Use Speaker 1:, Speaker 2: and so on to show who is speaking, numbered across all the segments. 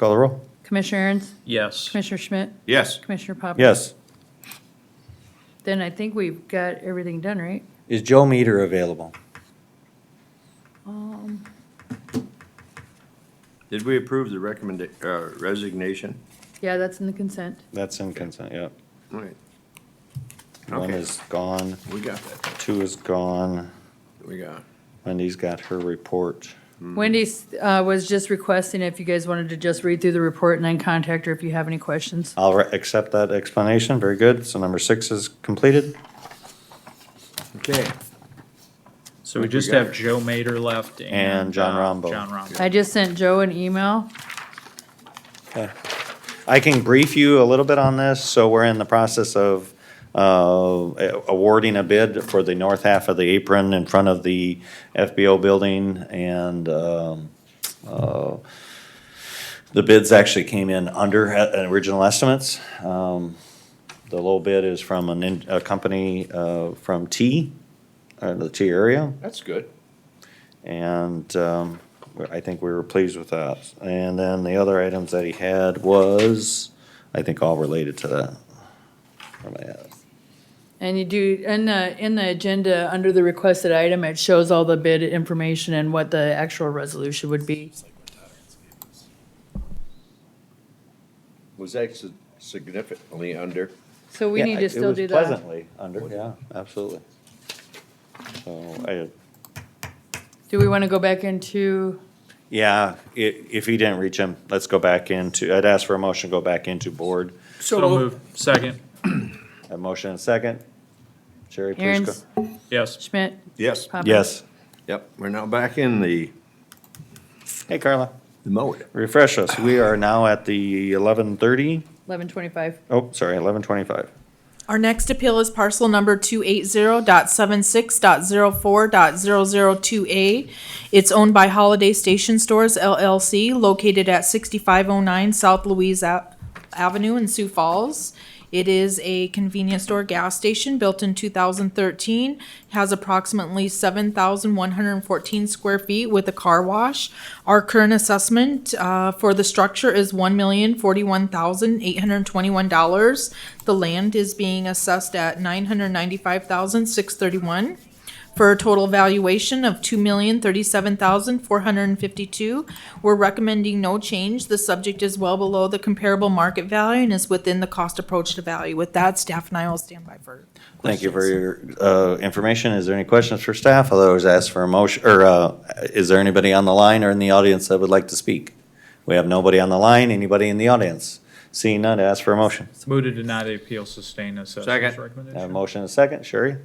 Speaker 1: Call the roll.
Speaker 2: Commissioner Aaron's,
Speaker 3: Yes.
Speaker 2: Commissioner Schmidt,
Speaker 4: Yes.
Speaker 2: Commissioner Poppins.
Speaker 1: Yes.
Speaker 2: Then I think we've got everything done, right?
Speaker 1: Is Joe Meter available?
Speaker 2: Um,
Speaker 4: Did we approve the recommend, uh, resignation?
Speaker 2: Yeah, that's in the consent.
Speaker 1: That's in consent, yep.
Speaker 4: All right,
Speaker 1: One
Speaker 4: Okay.
Speaker 1: is gone,
Speaker 4: we got that,
Speaker 1: two is gone.
Speaker 4: we got.
Speaker 1: Wendy's got her report.
Speaker 2: Wendy's uh, was just requesting if you guys wanted to just read through the report and then contact her if you have any questions.
Speaker 1: I'll re- accept that explanation. Very good. So number six is completed.
Speaker 4: Okay,
Speaker 3: So we just
Speaker 4: got
Speaker 3: have Joe Mater left and.
Speaker 1: And John
Speaker 3: uh,
Speaker 1: Rombo.
Speaker 3: John Rombo.
Speaker 2: I just sent Joe an email.
Speaker 1: I can brief you a little bit on this. So we're in the process of uh, awarding a bid for the north half of the apron in front of the FBO building and um, uh, the bids actually came in under uh, original estimates. Um, The low bid is from an in- a company uh, from T, uh, the T area.
Speaker 4: that's good.
Speaker 1: And um, I think we were pleased with that. And then the other items that he had was, I think, all related to that. What am I at?
Speaker 2: And you do, in the, in the agenda, under the requested item, it shows all the bid information and what the actual resolution would be.
Speaker 4: Was that si- significantly under?
Speaker 2: So we
Speaker 1: Yeah,
Speaker 2: need
Speaker 1: it
Speaker 2: to still
Speaker 1: was
Speaker 2: do that.
Speaker 1: Pleasantly under, yeah, absolutely. So I,
Speaker 2: Do we want to go back into,
Speaker 1: yeah, i- if he didn't reach him, let's go back into, I'd ask for a motion, to go back into board.
Speaker 3: So move, second,
Speaker 1: A motion and second. Sherry, please go.
Speaker 2: Aaron's,
Speaker 3: yes.
Speaker 2: Schmidt,
Speaker 4: Yes.
Speaker 2: Poppins?
Speaker 1: Yes.
Speaker 4: Yep, we're now back in the,
Speaker 1: Hey, Carla,
Speaker 4: the mode.
Speaker 1: refresh us. We are now at the eleven thirty,
Speaker 2: Eleven twenty-five.
Speaker 1: oh, sorry, eleven twenty-five.
Speaker 5: Our next appeal is parcel number 280.76.04.002A. It's owned by Holiday Station Stores LLC, located at 6509 South Louise A- Avenue in Sioux Falls. It is a convenience store gas station built in 2013, has approximately 7,114 square feet with a car wash. Our current assessment uh, for the structure is $1,041,821. The land is being assessed at $995,631 for a total valuation of two million thirty-seven thousand four hundred and fifty-two. We're recommending no change. The subject is well below the comparable market value and is within the cost approach to value. With that, staff and I will stand by for.
Speaker 1: Thank you for
Speaker 5: questions.
Speaker 1: your uh, information. Is there any questions for staff? Otherwise, ask for a motion, or uh, is there anybody on the line or in the audience that would like to speak? We have nobody on the line, anybody in the audience? Seeing none, ask for a motion.
Speaker 3: Move to deny the appeal, sustain assessor's
Speaker 4: Second.
Speaker 1: Have a
Speaker 3: recommendation.
Speaker 1: motion and a second, Sherry?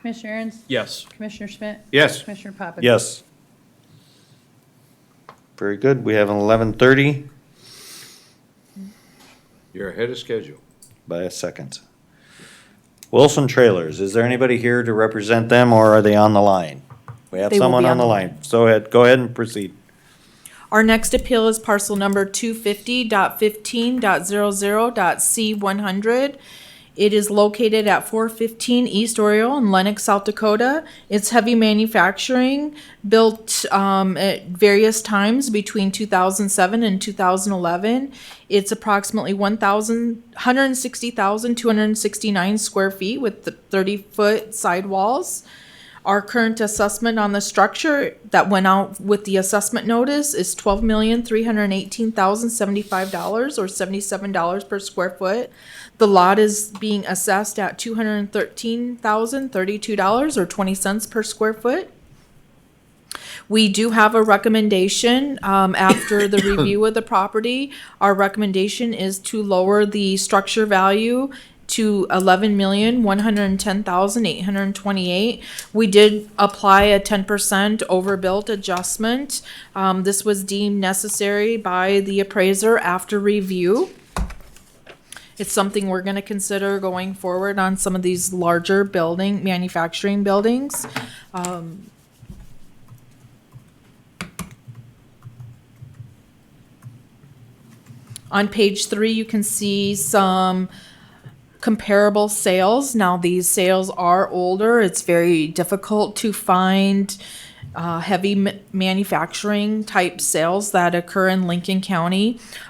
Speaker 2: Commissioner Aaron's,
Speaker 3: Yes.
Speaker 2: Commissioner Schmidt,
Speaker 4: Yes,
Speaker 2: Commissioner Poppins?
Speaker 1: Yes. Very good. We have an eleven thirty
Speaker 4: you're ahead of schedule.
Speaker 1: by a second. Wilson Trailers, is there anybody here to represent them or are they on the line? We have
Speaker 5: They will
Speaker 1: someone
Speaker 5: be
Speaker 1: on
Speaker 5: on
Speaker 1: the
Speaker 5: the
Speaker 1: line. So ahead- go ahead and proceed.
Speaker 5: Our next appeal is parcel number two fifty dot fifteen dot zero zero dot C one hundred. It is located at four fifteen East Oriole in Lenox, South Dakota. It's heavy manufacturing, built um, at various times between two thousand seven and two thousand eleven. It's approximately 1,000 160,269 square feet with the thirty foot sidewalls. Our current assessment on the structure that went out with the assessment notice is twelve million, three hundred and eighteen thousand, seventy-five dollars or seventy-seven dollars per square foot. The lot is being assessed at two hundred and thirteen thousand, thirty-two dollars or twenty cents per square foot. We do have a recommendation, um, after the review of the property. Our recommendation is to lower the structure value to eleven million, one hundred and ten thousand, eight hundred and twenty-eight. We did apply a ten percent overbuilt adjustment. Um, this was deemed necessary by the appraiser after review. It's something we're gonna consider going forward on some of these larger building, manufacturing buildings. On page three, you can see some comparable sales. Now, these sales are older. It's very difficult to find uh, heavy m- manufacturing type sales that occur in Lincoln County.